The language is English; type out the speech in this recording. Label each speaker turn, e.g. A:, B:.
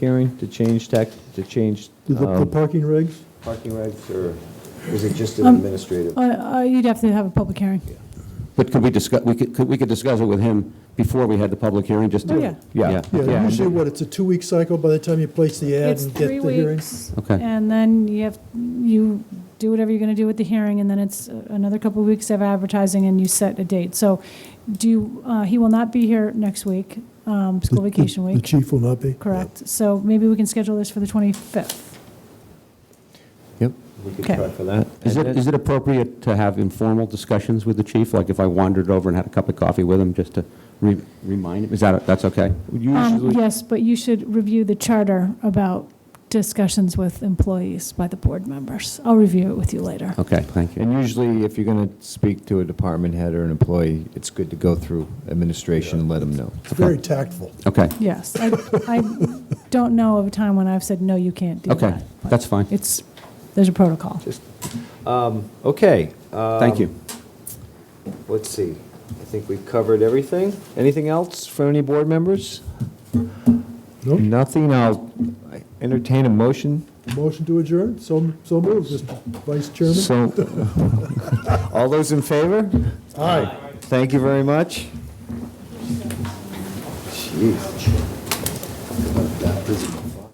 A: hearing to change tech, to change
B: Do the- the
A: um,
B: parking regs?
A: parking regs, or is it just an
C: Um,
A: administrative?
C: I- I- You'd have to have a public hearing.
D: But could we discuss, we could, could- we could discuss it with him before we had the public hearing, just to...
C: Oh, yeah.
D: Yeah.
B: Yeah,
D: yeah.
B: usually what, it's a two-week cycle by the time you place the ad
C: It's
B: and get
C: three
B: the hearing?
C: weeks.
D: Okay.
C: And then you have, you do whatever you're going to do with the hearing, and then it's uh, another couple of weeks of advertising, and you set a date. So do, you- uh, he will not be here next week, um, school
B: The- the-
C: vacation
B: The
C: week,
B: chief will not be?
C: correct? So maybe we can schedule this for the 25th.
D: Yep.
A: We could
C: Okay.
A: try for that.
D: Is it, is it appropriate to have informal discussions with the chief? Like if I wandered over and had a cup of coffee with him, just to re- remind him? Is that, that's okay?
C: Um,
A: Usually,
C: Yes, but you should review the charter about discussions with employees by the board members. I'll review it with you later.
D: Okay, thank you.
E: And usually, if you're going to speak to a department head or an employee, it's good to go through administration and let them know.
B: It's very tactful.
D: Okay,
C: Yes, I, I don't know of a time when I've said, no, you can't do that.
D: okay,
C: but
D: that's fine.
C: It's, there's a protocol.
A: just, um, okay.
D: Thank you.
A: um, Let's see, I think we've covered everything. Anything else from any board members?
B: No?
E: Nothing, I'll entertain a motion.
B: Motion to adjourn? So, so moved, Mr. Vice Chairman?
E: So, all those in favor?
B: Aye.
E: Thank you very much. Jeez.